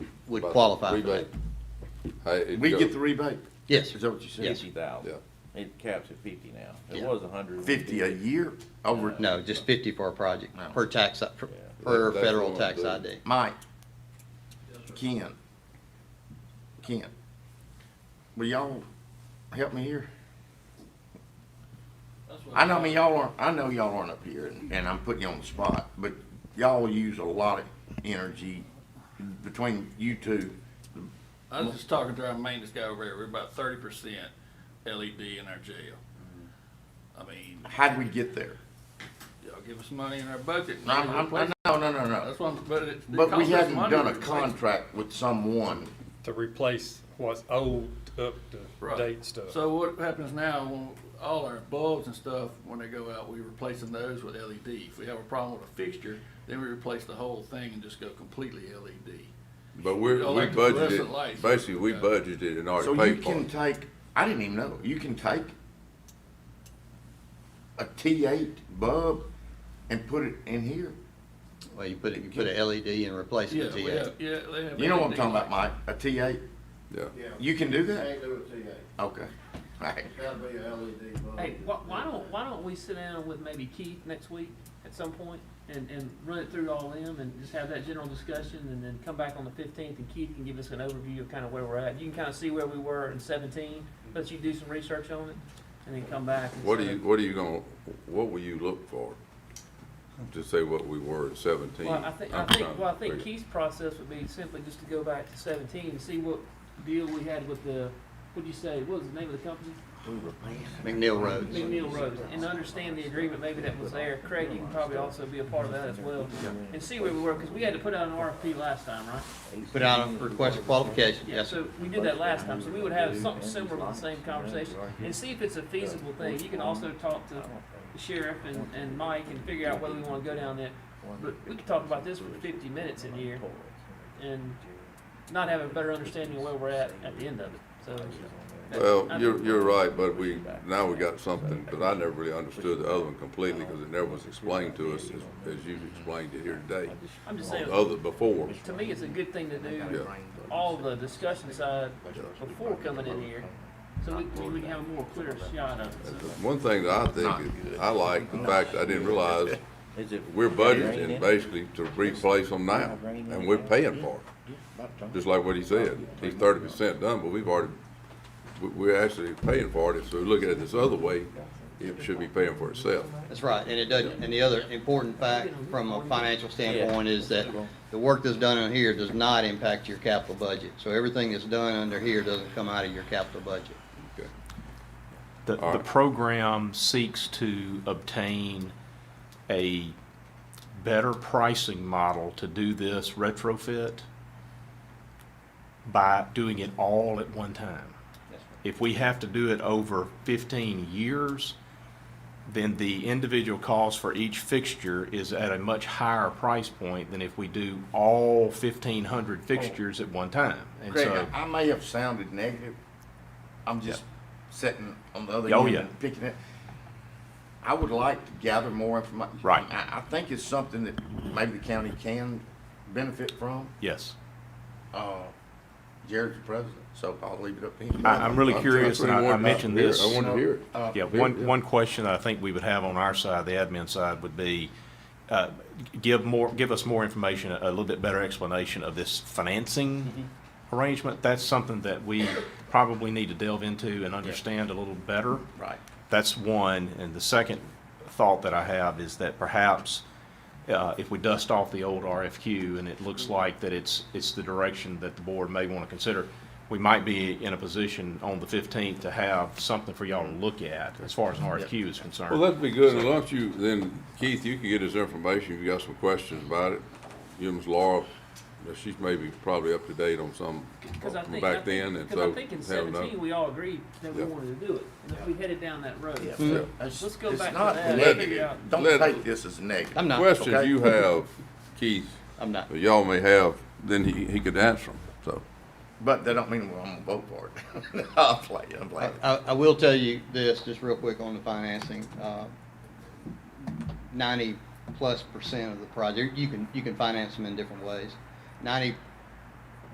would about the qualify for that. rebate. Hey, it We go- get the rebate? Yes, Is that what you said? Yes. fifty thousand. It caps at fifty now. It Yeah. was a hundred. Fifty a year over? no, just fifty for a project, No. per tax, per- Yeah. per That- that's federal what I'm tax doing. ID. Mike, Ken, Ken, will y'all help me here? I know, I mean, y'all aren't, I know y'all aren't up here, and- and I'm putting you on the spot, but y'all use a lot of energy between you two. I was just talking to our maintenance guy over there, we're about thirty percent LED in our jail. I mean, How'd we get there? y'all give us money in our budget. and No, I'm- we'll I'm- replace it. no, no, no, no. That's what I'm, but it. it But we costs us haven't money done to a replace it. contract with someone. to replace what's old up to Right. date stuff. So what happens now, when all our bulbs and stuff, when they go out, we're replacing those with LED. If we have a problem with a fixture, then we replace the whole thing and just go completely E LED. But we're, Y'all we like the fluorescent budgeted, lights. basically, we Yeah. budgeted and already So you paid for can it. take, I didn't even know, you can take a T eight bulb and put it in here. Well, you put, it- you put a E LED and replace Yeah, it with we GA. have, yeah, they have. E You know what I'm LED talking about, lights. Mike, a T eight, Yeah. you can do that? Can't do it TA. Okay, alright. That'd be a LED bulb. Hey, why, why don't, why don't we sit down with maybe Keith next week at some point and, and run it through all them and just have that general discussion and then come back on the fifteenth and Keith can give us an overview of kind of where we're at. You can kind of see where we were in seventeen, let you do some research on it and then come back. and What are sort you, of- what are you gonna, what will you look for? To say what we were at seventeen? Well, I think, I I'm think, trying to well, I think figure- Keith's process would be simply just to go back to seventeen and see what deal we had with the, what'd you say, what was the name of the company? McNeil Roads. McNeil Road, and understand the agreement maybe that was there. Craig, you can probably also be a part of that as well, and see where we were, because we had to put out an RFP last time, right? Put out a request for qualification, Yeah, yes, sir. so we did that last time, so we would have something similar to the same conversation, and see if it's a feasible thing. You can also talk to the sheriff and, and Mike and figure out whether we wanna go down that, but we could talk about this for fifty minutes in here, and not have a better understanding of where we're at at the end of it, so. that- I- Well, you're, you're right, but we, now we got something, but I never really understood the other one completely, cause it never was explained to us as, as you've explained it here today. I'm just saying. on the Other, before, To me, it's a good thing to do, yeah. all the discussion side before coming in here, so we, we can have a more clear shot of it, so. One thing that I think, is- I like the fact, that I didn't realize, Is it? we're budgeting basically to replace them now, and we're paying for it. Just like what he said, he's thirty percent done, but we've already, we, we're actually paying for it, so we look at it this other way, it should be paying for itself. That's right, and it doesn't, and the other important fact from a financial standpoint is that the work that's done on here does not impact your capital budget. So everything that's done under here doesn't come out of your capital budget. Okay. The, All the right. program seeks to obtain a better pricing model to do this retrofit by doing it all at one time. If we have to do it over fifteen years, then the individual cost for each fixture is at a much higher price point than if we do all fifteen hundred fixtures at one time. And Craig, so, I- I may have sounded negative. I'm just sitting on the other Oh, end yeah. and picking it. I would like to gather more information. Right. I, I think it's something that maybe the county can benefit from. yes. Uh, Jared's the president, so I'll leave it up to him. I, I'm really I'm curious, and I, I trying to mentioned figure it this. out. I want to hear it. Uh, Yeah, Very one, good. one question that I think we would have on our side, the admin side, would be, uh, give more, give us more information, a little bit better explanation of this financing arrangement. That's something that we probably need to delve into and understand a little better. Right. That's one. And the second thought that I have is that perhaps uh, if we dust off the old RFQ and it looks like that it's, it's the direction that the board may want to consider, we might be in a position on the 15th to have something for y'all to look at as far as an RFQ is Well, concerned. that'd be good, and why don't you, then Keith, you can get his information, if you got some questions about it. You and Ms. Laura, now, she's maybe probably up to date on some Because I from think, back then, and so. because I think in have another- seventeen, we all agreed that we Yeah. wanted to do it, and if we headed down that road. Mm-hmm. Yeah. Let's go It's back to not that and negative. figure out- Don't Let- take this as negative. I'm not, Questions you have, Keith, I'm not. that y'all may have, then he, he could answer them, so. But that don't mean I'm gonna vote for it. I'll play, I'm playing. I, I will tell you this, just real quick on the financing, uh, ninety-plus percent of the project, you can, you can finance them in different ways. Ninety